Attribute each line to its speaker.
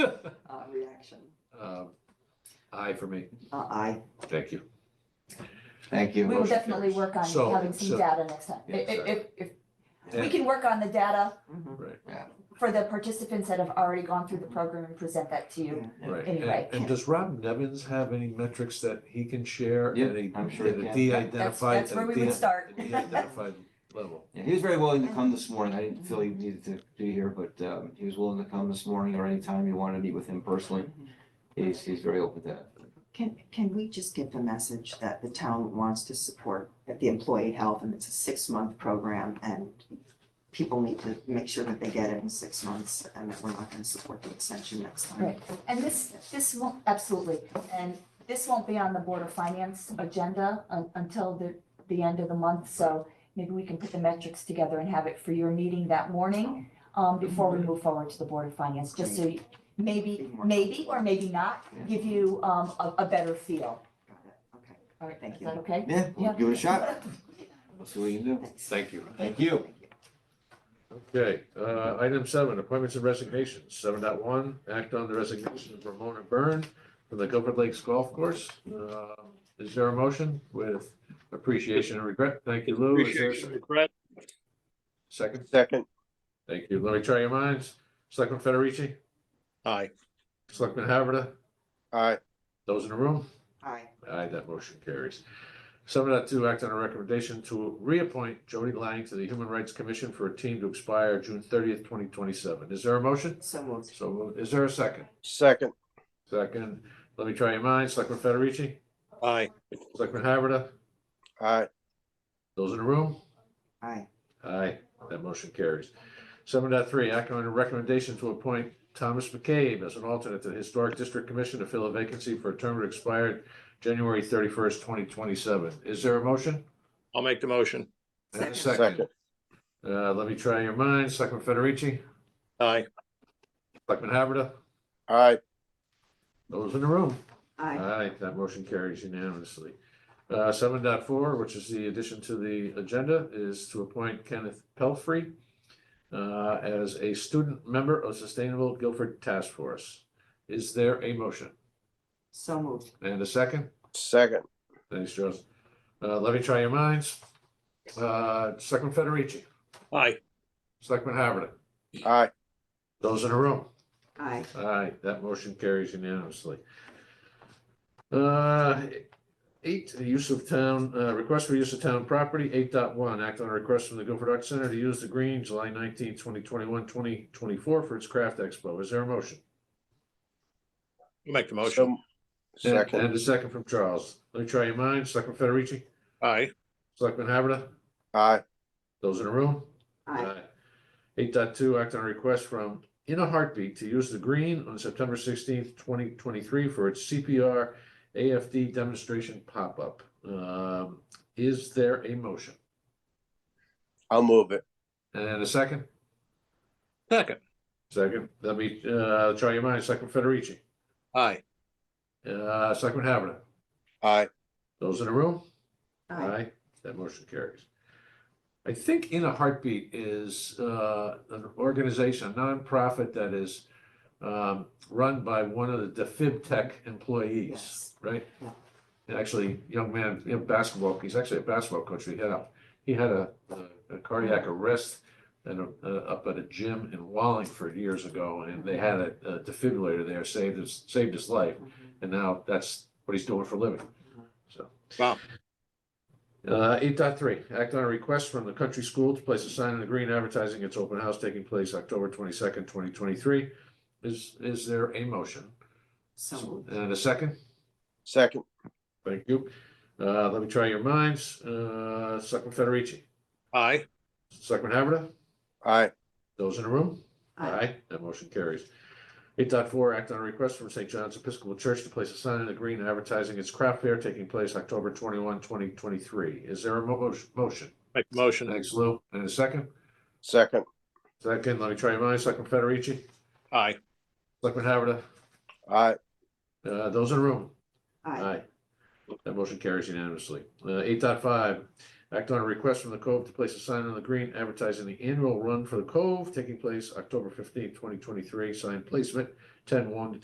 Speaker 1: uh, reaction.
Speaker 2: Um, Aye for me.
Speaker 1: Uh, aye.
Speaker 2: Thank you.
Speaker 3: Thank
Speaker 4: We
Speaker 3: you.
Speaker 4: will
Speaker 2: Motion
Speaker 4: definitely
Speaker 2: carries.
Speaker 4: work on
Speaker 2: So-
Speaker 4: having some
Speaker 2: so-
Speaker 4: data next time.
Speaker 2: Yeah,
Speaker 4: If, if,
Speaker 2: exactly.
Speaker 4: if, if
Speaker 2: Yeah.
Speaker 4: we can work on the data
Speaker 1: Mhm.
Speaker 4: for the participants that have already gone through the program and present that to you.
Speaker 2: Right.
Speaker 4: Uh, Anyway.
Speaker 2: And- And does Rob Nevins have any metrics that he can share?
Speaker 3: Yeah,
Speaker 2: at a-
Speaker 3: I'm sure
Speaker 2: at a
Speaker 3: he can.
Speaker 4: That's,
Speaker 2: De-identified.
Speaker 4: that's where
Speaker 2: at
Speaker 4: we
Speaker 2: a de-
Speaker 4: would start.
Speaker 2: at a De-identified level.
Speaker 3: Yeah, he was very willing to come this morning. I didn't feel he needed to be here, but um, he was willing to come this morning or anytime you wanted to meet with him personally. He's, he's very open to that.
Speaker 1: Can, can we just get the message that the town wants to support the employee health and it's a six-month program and people need to make sure that they get it in six months and that we're not gonna support the extension next time.
Speaker 4: Right. And this, this won't, absolutely, and this won't be on the Board of Finance agenda un- until the, the end of the month, so maybe we can put the metrics together and have it for your meeting that morning, um, before we move forward to the Board of Finance, just so you- maybe, maybe or maybe not, give you, um, a, a better
Speaker 1: Got
Speaker 4: feel.
Speaker 1: it. Okay,
Speaker 4: All right,
Speaker 1: Thank
Speaker 4: is
Speaker 1: you.
Speaker 4: that okay?
Speaker 3: Yeah, we'll
Speaker 4: Yeah.
Speaker 3: give it a shot. We'll see what we can do.
Speaker 1: thanks.
Speaker 2: Thank you.
Speaker 3: Thank you.
Speaker 2: Okay, uh, item seven, appointments and resignations. Seven dot one, act on the resignation of Ramona Byrne from the Gilbert Lakes Golf Course. Uh, Is there a motion with appreciation and regret? Thank you, Lou. Is there a
Speaker 5: Appreciation, Brett.
Speaker 2: second?
Speaker 6: Second,
Speaker 2: Thank you. Let me try your minds. Selectman Federici,
Speaker 5: Aye.
Speaker 2: Selectman Haverda,
Speaker 6: aye,
Speaker 2: those in the room?
Speaker 1: Aye.
Speaker 2: Aye, that motion carries. Seven dot two, act on a recommendation to reappoint Jody Lang to the Human Rights Commission for a team to expire June thirtieth, twenty twenty-seven. Is there a motion?
Speaker 1: So moved.
Speaker 2: So moved. is there a second?
Speaker 6: second,
Speaker 2: Second, let me try your minds. Selectman Federici,
Speaker 5: Aye.
Speaker 2: Selectman Haverda,
Speaker 6: aye,
Speaker 2: those in the room?
Speaker 1: Aye.
Speaker 2: Aye, that motion carries. Seven dot three, act on a recommendation to appoint Thomas McCabe as an alternate to the Historic District Commission to fill a vacancy for a term to expire January thirty-first, twenty twenty-seven. Is there a motion?
Speaker 5: I'll make the motion.
Speaker 2: And a
Speaker 6: second,
Speaker 2: Uh, let me try your minds. Selectman Federici,
Speaker 5: Aye.
Speaker 2: Selectman Haverda,
Speaker 6: aye,
Speaker 2: those in the room?
Speaker 1: Aye.
Speaker 2: Aye, that motion carries unanimously. Uh, seven dot four, which is the addition to the agenda, is to appoint Kenneth Pelfrey uh, as a student member of Sustainable Guilford Task Force. Is there a motion?
Speaker 1: So moved.
Speaker 2: And a second?
Speaker 6: second,
Speaker 2: Thanks, Charles. Uh, let me try your minds. Uh, Selectman Federici,
Speaker 5: Aye.
Speaker 2: Selectman Havertich,
Speaker 6: aye,
Speaker 2: those in the room?
Speaker 1: Aye.
Speaker 2: Aye, that motion carries unanimously. Uh, Eight, the use of town, uh, request for use of town property, eight dot one, act on a request from the Guilford Arts Center to use the green July nineteenth, twenty twenty-one, twenty twenty-four for its craft expo. Is there a motion?
Speaker 5: I'll make the motion.
Speaker 6: so, second,
Speaker 2: And a second from Charles. Let me try your minds. Selectman Federici,
Speaker 5: Aye.
Speaker 2: Selectman Haverda,
Speaker 6: aye,
Speaker 2: those in the room?
Speaker 1: Aye.
Speaker 2: Eight dot two, act on a request from In a Heartbeat to use the green on September sixteenth, twenty twenty-three for its CPR AFD demonstration pop-up. Um, is there a motion?
Speaker 6: I'll move it,
Speaker 2: And a second?
Speaker 5: Second.
Speaker 2: Second, let me, uh, try your minds, Selectman Federici,
Speaker 5: Aye.
Speaker 2: uh, Selectman Havertich,
Speaker 6: aye,
Speaker 2: those in the room?
Speaker 1: Aye.
Speaker 2: That motion carries. I think In a Heartbeat is uh, an organization, a nonprofit that is um, run by one of the DeFib Tech employees,
Speaker 1: Yes.
Speaker 2: right?
Speaker 1: Yeah.
Speaker 2: And Actually, young man, you know, basketball, he's actually a basketball coach. He had a, he had a a cardiac arrest and a- uh, up at a gym in Wallingford years ago, and they had a a defibrillator there, saved his, saved his life.
Speaker 1: Mhm.
Speaker 2: And now that's what he's doing for a living, so.
Speaker 5: Wow.
Speaker 2: Uh, eight dot three, act on a request from the country school to place a sign in the green advertising its open house taking place October twenty-second, twenty twenty-three. Is, is there a motion?
Speaker 1: So moved.
Speaker 2: And a second?
Speaker 6: second,
Speaker 2: Thank you. Uh, let me try your minds. Uh, Selectman Federici,
Speaker 5: Aye.
Speaker 2: Selectman Haverda,
Speaker 6: aye,
Speaker 2: those in the room?
Speaker 1: Aye.
Speaker 2: That motion carries. Eight dot four, act on a request from St. John's Episcopal Church to place a sign in the green advertising its craft fair taking place October 21, 2023. Is there a mo- motion?
Speaker 5: Make the motion.
Speaker 2: Thanks, Lou. And a second?
Speaker 6: second,
Speaker 2: Second, let me try your minds. Selectman Federici,
Speaker 5: Aye.
Speaker 2: Selectman Haverda,
Speaker 6: aye,
Speaker 2: uh, those in the room?
Speaker 1: Aye.
Speaker 2: That motion carries unanimously. Uh, eight Act on a request from the Cove to place a sign on the green advertising the annual run for the Cove taking place October fifteenth, twenty twenty-three. Sign placement ten one to